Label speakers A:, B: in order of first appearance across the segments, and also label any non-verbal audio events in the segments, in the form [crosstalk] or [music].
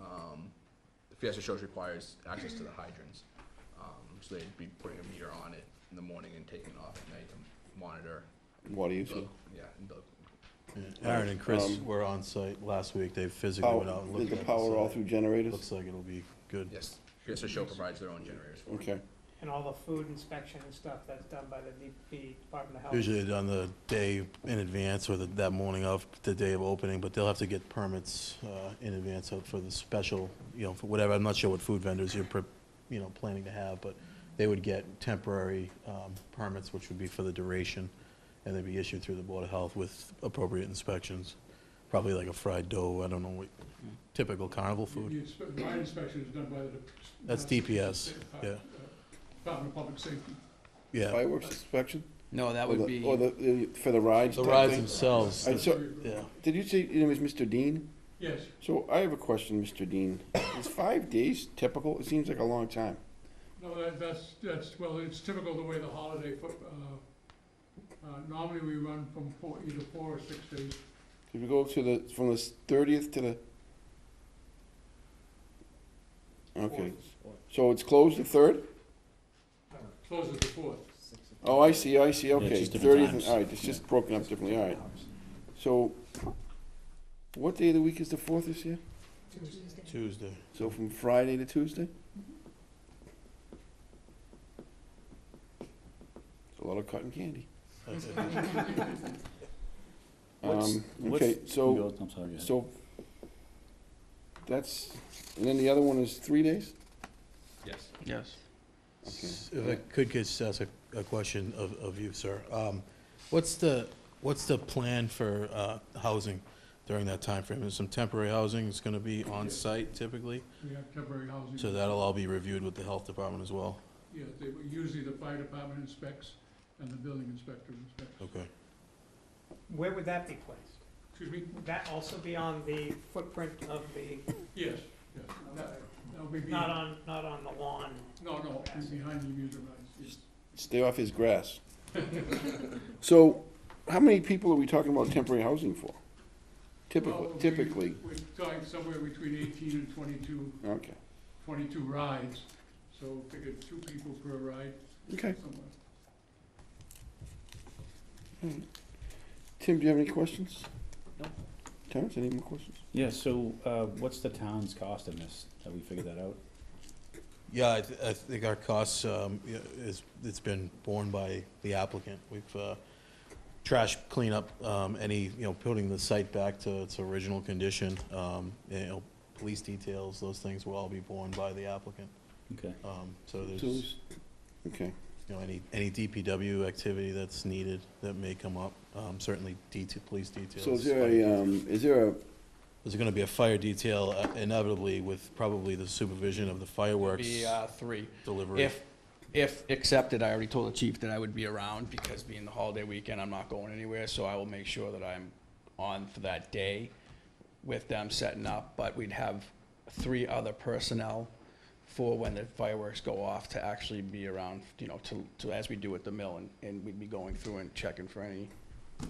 A: um, Fiesta Shows requires access to the hydrants. Um, so they'd be putting a meter on it in the morning and taking it off at night to monitor.
B: Water
A: the-
B: usage.
A: Yeah, and the
C: Aaron and Chris
B: Um,
C: were on site last week. They physically went
B: Power,
C: out and
B: is
C: looked
B: the
C: at the
B: power all
C: site.
B: through generators?
C: Looks like it'll be good.
A: Yes, Fiesta Show provides their own generators for it.
B: Okay,
D: And all the food inspection and stuff that's done by the DP, Department of Health.
C: Usually done the day in advance or the- that morning of the day of opening, but they'll have to get permits uh, in advance of- for the special, you know, for whatever. I'm not sure what food vendors you're, pre- you know, planning to have, but they would get temporary um, permits, which would be for the duration, and they'd be issued through the Board of Health with appropriate inspections. Probably like a fried dough, I don't know, what typical carnival food.
E: You- you inspe- My inspection is done by the.
C: That's DPS,
E: uh,
C: yeah.
E: Department of Public Safety.
C: Yeah,
B: fireworks inspection?
F: No, that
B: Or
F: would
B: the-
F: be,
B: Or the, for the rides?
C: the
B: type
C: rides
B: thing?
C: themselves,
B: I
C: the-
B: saw-
C: yeah.
B: Did you say, your name is Mr. Dean?
E: Yes,
B: So I have a question, Mr.
C: [coughs]
B: Dean. Is five days typical? It seems like a long time.
E: no, that, that's, that's, well, it's typical the way the holiday, fo- uh, uh, normally we run from four, either four or six days.
B: If you go to the, from the thirtieth to the. Okay, so it's closed the third?
E: Closes the fourth.
B: Oh, I see, I see, okay.
F: just different
B: Thirtieth,
F: times.
B: all right, it's just broken up differently, all right. So, what day of the week is the fourth this year?
C: Tuesday.
B: So from Friday to Tuesday? It's a lot of cotton candy.
F: What's-
B: Um,
F: what's-
B: okay, so,
F: I'm sorry, yeah.
B: so, that's, and then the other one is three days?
A: Yes.
F: Yes.
B: Okay.
C: If I could just ask a- a question of of you, sir. Um, What's the, what's the plan for uh, housing during that timeframe? There's some temporary housing that's going to be on-site typically,
E: We have temporary housing.
C: so that'll all be reviewed with the health department as well.
E: Yeah, they, usually the fire department inspects and the building inspector inspects.
C: Okay.
D: Where would that be placed?
E: Excuse me?
D: Would that also be on the footprint of the,
E: Yes, yes. That, that would be, be-
D: not
E: no,
D: on, not on the lawn?
E: no, it'd be behind the amusement rides, yes.
B: Stay off his
F: [laughs]
B: grass. So, how many people are we talking about temporary housing for? Typically,
E: Well, we-
B: typically,
E: We're talking somewhere between eighteen and twenty-two
B: okay,
E: 22 rides, so figure two people per ride
B: okay.
E: somewhere.
B: Tim, do you have any questions?
F: No.
B: Terrence, any more questions?
G: Yeah, so, uh, what's the town's cost in this? Have we figured that out?
C: Yeah, I th- I think our costs, um, y- is, it's been borne by the applicant. We've uh, trash cleanup, um, any, you know, putting the site back to its original condition, um, you know, police details, those things will all be borne by the applicant.
G: Okay.
C: Um, So there's, you
B: Tools? Okay,
C: know, any, any DPW activity that's needed that may come up, um, certainly detail, police details.
B: so is there a, um, is there a,
C: There's gonna be a fire detail uh, inevitably with probably the supervision of the fireworks
F: Be, uh, three.
C: delivery.
F: If, if accepted, I already told the chief that I would be around because being the holiday weekend, I'm not going anywhere, so I will make sure that I'm on for that day with them setting up, but we'd have three other personnel for when the fireworks go off to actually be around, you know, to, to, as we do at the mill, and, and we'd be going through and checking for any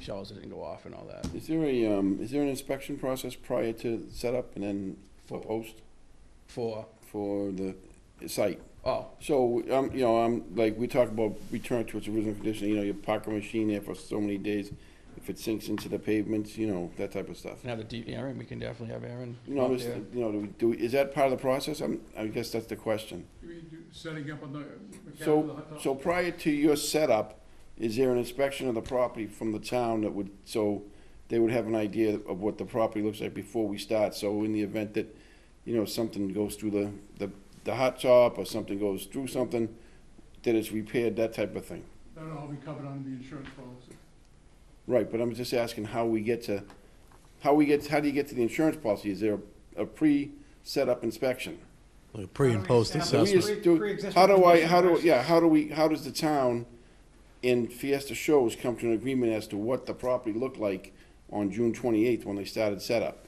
F: shells that didn't go off and all that.
B: is there a, um, is there an inspection process prior to setup and then for
F: For-
B: post
F: For,
B: for the site?
F: oh,
B: So, um, you know, I'm, like, we talk about return to its original condition, you know, you park a machine there for so many days, if it sinks into the pavements, you know, that type of stuff.
F: Can have a D, Aaron, we can definitely have Aaron.
B: You know, I'm
F: out
B: just,
F: there.
B: you know, do, we- do, we- is that part of the process? I'm, I guess that's the question.
E: You mean do- setting up on the mechanical
B: So,
E: hot
B: so prior to your setup, is there an inspection of the property from the town that would, so they would have an idea of what the property looks like before we start? So in the event that, you know, something goes through the, the, the hot top or something goes through something, that it's repaired, that type of thing?
E: That'll all be covered under the insurance policy.
B: Right, but I'm just asking how we get to, how we get, how do you get to the insurance policy? Is there a pre-setup inspection?
C: Like a Pre and post
D: How do we
B: Do we
C: assessment.
D: establish-
B: just do-
D: Pre-existing
B: How do I,
D: condition
B: how do,
D: versus-
B: yeah, how do we, how does the town in Fiesta Shows come to an agreement as to what the property looked like on June twenty-eighth when they started setup?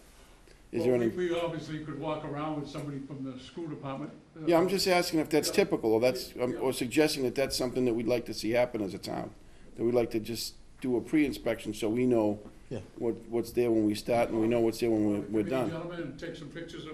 B: Is there
E: Well,
B: any,
E: we- We obviously could walk around with somebody from the school department. uh,
B: yeah, I'm just asking if that's
E: Yeah.
B: typical, or that's, um,
E: Yeah.
B: or suggesting that that's something that we'd like to see happen as a town. That we'd like to just do a pre-inspection so we know
C: Yeah.
B: what, what's there when we start and we know what's there when we're,
E: come
B: we're
E: in,
B: done.
E: Gentlemen, and take some pictures of